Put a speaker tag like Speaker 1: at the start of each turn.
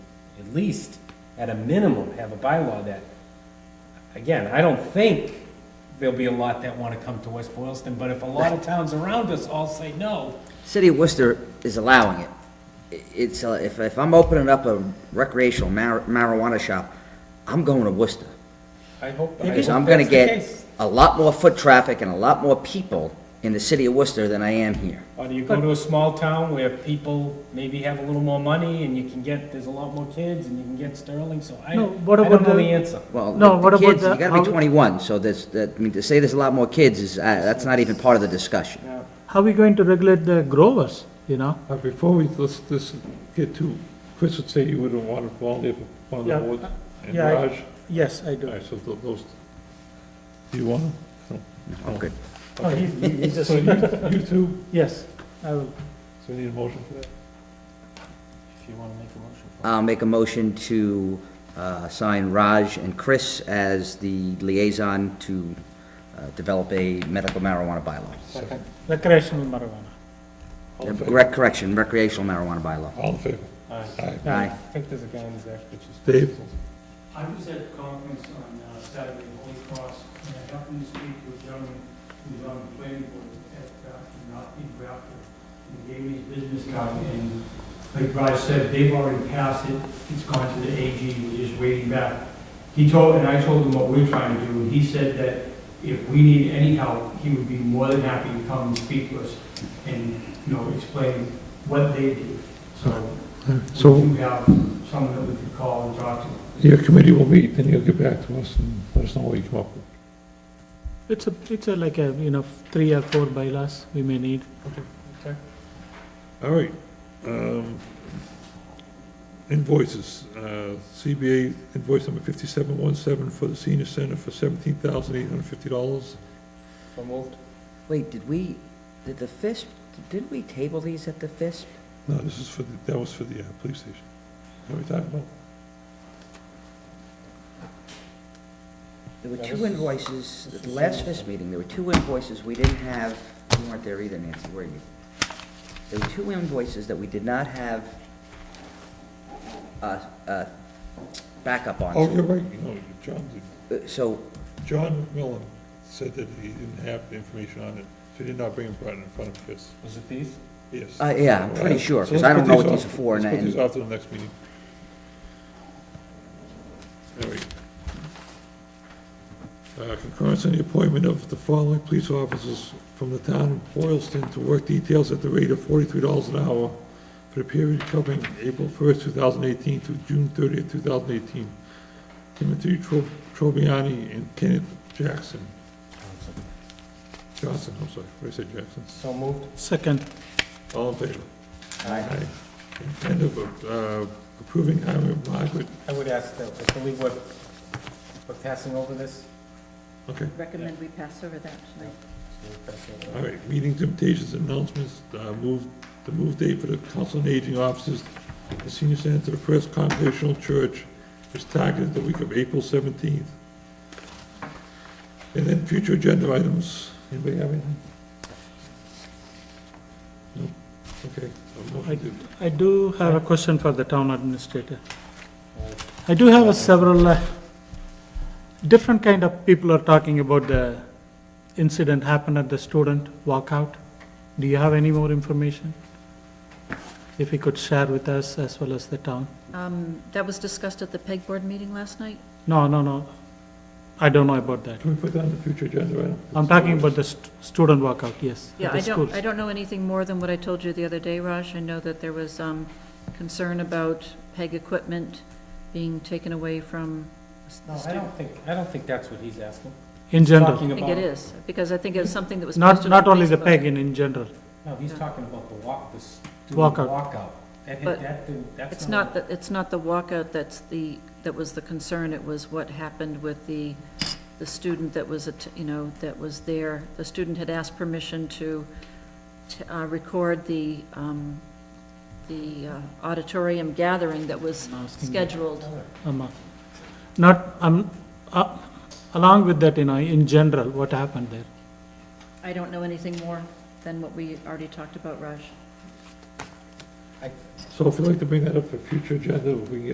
Speaker 1: at least, at a minimum, have a bylaw that, again, I don't think there'll be a lot that wanna come to West Boylston, but if a lot of towns around us all say no,
Speaker 2: City of Worcester is allowing it. I- It's, uh, if, if I'm opening up a recreational mar- marijuana shop, I'm going to Worcester.
Speaker 1: I hope, I hope
Speaker 2: Because I'm gonna
Speaker 1: that's the
Speaker 2: get
Speaker 1: case.
Speaker 2: a lot more foot traffic and a lot more people in the city of Worcester than I am here.
Speaker 1: Or do you go to a small town where people maybe have a little more money and you can get, there's a lot more kids and you can get Sterling, so I, I
Speaker 3: No,
Speaker 1: don't
Speaker 3: what about
Speaker 1: know the
Speaker 3: the-
Speaker 1: answer.
Speaker 2: Well,
Speaker 3: No,
Speaker 2: the
Speaker 3: what about
Speaker 2: kids,
Speaker 3: the-
Speaker 2: you gotta be
Speaker 3: how-
Speaker 2: twenty-one, so there's, that, I mean, to say there's a lot more kids is, uh, that's not even part of the discussion.
Speaker 1: Now,
Speaker 3: How are we going to regulate the growers, you know?
Speaker 4: Uh, Before we, let's, let's get to, Chris would say you wouldn't want to volunteer for one
Speaker 5: Yeah,
Speaker 4: of the boards and
Speaker 5: yeah, I-
Speaker 4: Raj.
Speaker 5: Yes, I
Speaker 4: All
Speaker 5: do.
Speaker 4: right, so th- those, do you want them?
Speaker 2: Oh, good.
Speaker 5: Oh, he, he- he just,
Speaker 4: So you, you two,
Speaker 5: yes, I will.
Speaker 4: so we need a motion for that?
Speaker 1: If you wanna make a motion for it.
Speaker 2: I'll make a motion to, uh, sign Raj and Chris as the liaison to, uh, develop a medical marijuana bylaw.
Speaker 5: Recreational marijuana.
Speaker 4: All
Speaker 2: Uh,
Speaker 4: in favor?
Speaker 2: rec- Correction, recreational marijuana bylaw.
Speaker 4: All in favor?
Speaker 1: Aye.
Speaker 4: Aye.
Speaker 2: Aye.
Speaker 1: I think there's a guy in his act which is.
Speaker 4: Dave?
Speaker 6: I was at a conference on uh, Saturday, Holy Cross, and I happened to speak to a gentleman who's on the planning board at, uh, not in Grafton. He gave me his business card, and like Bryce said, they've already passed it, it's gone to the AG, we're just waiting back. He told, and I told him what we're trying to do, and he said that if we need any help, he would be more than happy to come and speak to us and, you know, explain what they do. So we
Speaker 4: So
Speaker 6: do have someone that we could call and talk to.
Speaker 4: your committee will meet, then you'll get back to us and let us know what you come up with.
Speaker 3: It's a, it's a like a, you know, three or four bylaws we may need.
Speaker 4: All right. um, Invoices, uh, CBA invoice number 5717 for the senior center for $17,850.
Speaker 1: So moved.
Speaker 2: Wait, did we, did the FISP, didn't we table these at the FISP?
Speaker 4: No, this is for, the that was for the uh, police station. What are we talking about?
Speaker 2: There were
Speaker 1: Yeah,
Speaker 2: two
Speaker 1: this is-
Speaker 2: invoices, at the last FISP meeting, there were two invoices we didn't have, you weren't there either, Nancy, were you? There were two invoices that we did not have uh, uh, backup on.
Speaker 4: Oh, you're right, you know, John, did-
Speaker 2: Uh, So,
Speaker 4: John McMillan said that he didn't have the information on it, so he did not bring it right in front of us,
Speaker 1: Was it these?
Speaker 4: yes.
Speaker 2: uh, yeah, I'm pretty sure, because I don't know what these are for. and-
Speaker 4: Let's put these
Speaker 2: and-
Speaker 4: off to the next meeting. All right. Uh, Concurrence on the appointment of the following police officers from the town of Boylston to work details at the rate of forty-three dollars an hour for the period covering April first, two thousand eighteen through June thirtieth, two thousand eighteen. Timothy Tro- Trobiani and Kenneth Jackson, Johnson, I'm sorry, I said Jackson.
Speaker 1: So moved.
Speaker 3: Second,
Speaker 4: All in favor? Aye. Intent of uh, approving hiring of Margaret,
Speaker 1: I would ask that, I believe we're, we're passing over this.
Speaker 4: okay,
Speaker 7: Recommend we pass over that tonight.
Speaker 4: all right, meetings, invitations, announcements, uh, move, the move date for the council and aging offices, the senior center to the First Congregational Church is targeted the week of April seventeenth. And then future agenda items, anybody have anything? No, okay, a motion to
Speaker 3: I do have a question for the town administrator. I do have a several, uh, different kind of people are talking about the incident happened at the student walkout. Do you have any more information? If you could share with us as well as the town?
Speaker 7: Um, That was discussed at the PEG board meeting last night?
Speaker 3: No, no, no. I don't know about that.
Speaker 4: Can we put that on the future agenda item?
Speaker 3: I'm talking about the st- student walkout, yes. at
Speaker 7: Yeah,
Speaker 3: the
Speaker 7: I don't,
Speaker 3: schools.
Speaker 7: I don't know anything more than what I told you the other day, Raj. I know that there was um, concern about PEG equipment being taken away
Speaker 1: No,
Speaker 7: from the
Speaker 1: I
Speaker 7: student.
Speaker 1: don't think, I don't think that's what he's asking.
Speaker 3: In general,
Speaker 1: Talking
Speaker 7: I think
Speaker 1: about,
Speaker 7: it is, because I think it's something that was
Speaker 3: not,
Speaker 7: posted on
Speaker 3: not only the
Speaker 7: Facebook.
Speaker 3: PEG, in, in general.
Speaker 1: no, he's talking about the walk, the student
Speaker 3: Walkout.
Speaker 1: walkout. That, hit-
Speaker 7: But
Speaker 1: that, didn't- that's
Speaker 7: It's not, the- it's not the walkout that's the, that was the concern, it was what happened with the, the student that was, at- you know, that was there. The student had asked permission to, to uh, record the, um, the uh, auditorium gathering that was scheduled.
Speaker 3: Um, uh, Not, um, uh, along with that, you know, in general, what happened there?
Speaker 7: I don't know anything more than what we already talked about, Raj.
Speaker 4: So if you'd like to bring that up for future agenda, we can get